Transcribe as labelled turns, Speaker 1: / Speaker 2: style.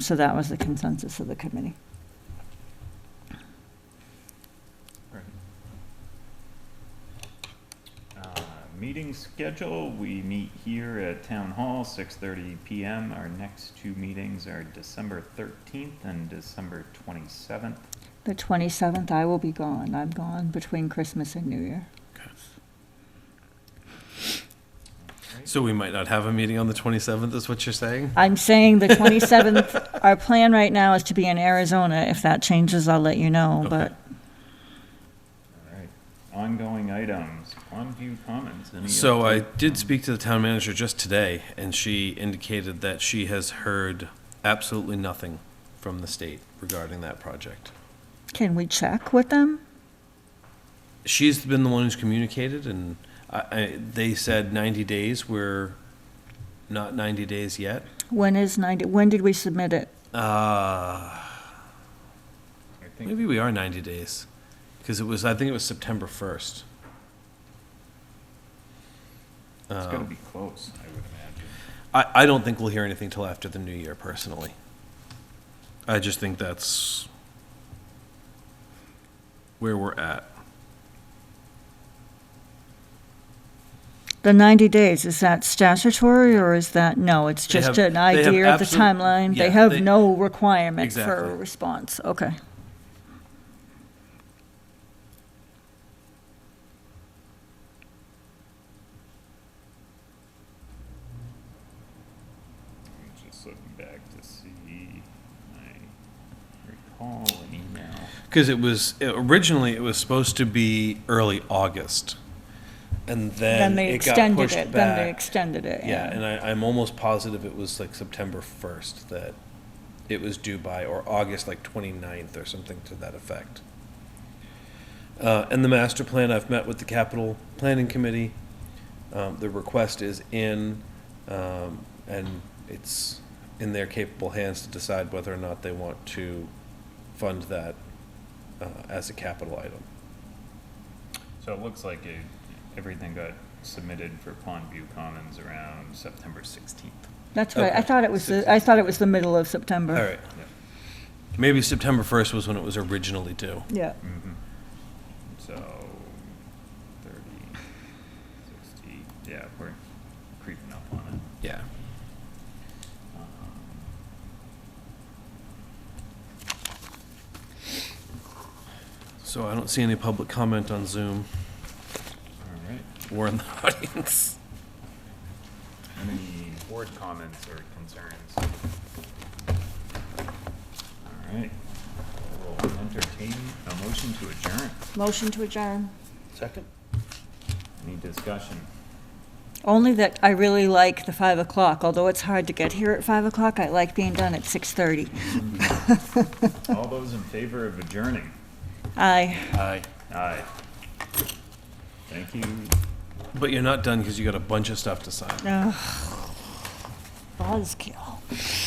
Speaker 1: So that was the consensus of the committee.
Speaker 2: Uh, Meeting schedule, we meet here at Town Hall, six thirty PM. Our next two meetings are December thirteenth and December twenty-seventh.
Speaker 1: The 27th, I will be gone. I'm gone between Christmas and New Year.
Speaker 3: So we might not have a meeting on the 27th, is what you're saying?
Speaker 1: I'm saying the 27th, our plan right now is to be in Arizona. If that changes, I'll let you know, but
Speaker 3: Okay.
Speaker 2: All right, ongoing items, Pondview Commons. any
Speaker 3: So I
Speaker 2: update
Speaker 3: did
Speaker 2: on-
Speaker 3: speak to the town manager just today, and she indicated that she has heard absolutely nothing from the state regarding that project.
Speaker 1: can we check with them?
Speaker 3: She's been the one who's communicated, and I, I, they said 90 days. We're not 90 days yet.
Speaker 1: When is 90, when did we submit it?
Speaker 3: Uh,
Speaker 2: I think
Speaker 3: maybe we are 90 days, because it was, I think it was September 1st.
Speaker 2: It's
Speaker 3: uh,
Speaker 2: gotta be close, I would imagine.
Speaker 3: I, I don't think we'll hear anything till after the new year, personally. I just think that's where we're at.
Speaker 1: The 90 days, is that statutory or is that, no, it's
Speaker 3: They
Speaker 1: just
Speaker 3: have-
Speaker 1: an
Speaker 3: they have
Speaker 1: idea of the
Speaker 3: absolute-
Speaker 1: timeline? They
Speaker 3: yeah,
Speaker 1: have
Speaker 3: they-
Speaker 1: no requirement for
Speaker 3: Exactly.
Speaker 1: a response. Okay.
Speaker 2: I'm just looking back to see, I recall an email.
Speaker 3: Because it was, originally, it was supposed to be early August. And
Speaker 1: Then
Speaker 3: then
Speaker 1: they
Speaker 3: it got
Speaker 1: extended
Speaker 3: pushed
Speaker 1: it, then they
Speaker 3: back.
Speaker 1: extended it.
Speaker 3: Yeah, and I, I'm almost positive it was like September first that it was due by, or August like 29th or something to that effect. Uh, and the master plan, I've met with the capital planning committee. Um, the request is in, um, and it's in their capable hands to decide whether or not they want to fund that, uh, as a capital item.
Speaker 2: So it looks like it, everything got submitted for Pondview Commons around September sixteenth.
Speaker 1: That's right. I
Speaker 3: Okay.
Speaker 1: thought it was, the- I thought it was the middle of September.
Speaker 3: All right. Maybe September first was when it was originally due.
Speaker 1: Yeah.
Speaker 2: Mm-hmm. So, 30, 60, yeah, we're creeping up on it.
Speaker 3: Yeah.
Speaker 2: Um,
Speaker 3: So I don't see any public comment on Zoom
Speaker 2: All right,
Speaker 3: or in the audience.
Speaker 2: any board comments or concerns? All right, we'll entertain a motion to adjourn.
Speaker 1: Motion to adjourn.
Speaker 3: Second?
Speaker 2: Any discussion?
Speaker 1: Only that I really like the 5 o'clock, although it's hard to get here at 5 o'clock, I like being done at 6:30.
Speaker 2: All those in favor of adjourning?
Speaker 1: Aye.
Speaker 3: Aye.
Speaker 2: Aye. Thank you.
Speaker 3: But you're not done because you got a bunch of stuff to sign.
Speaker 1: Ugh. Buzzkill.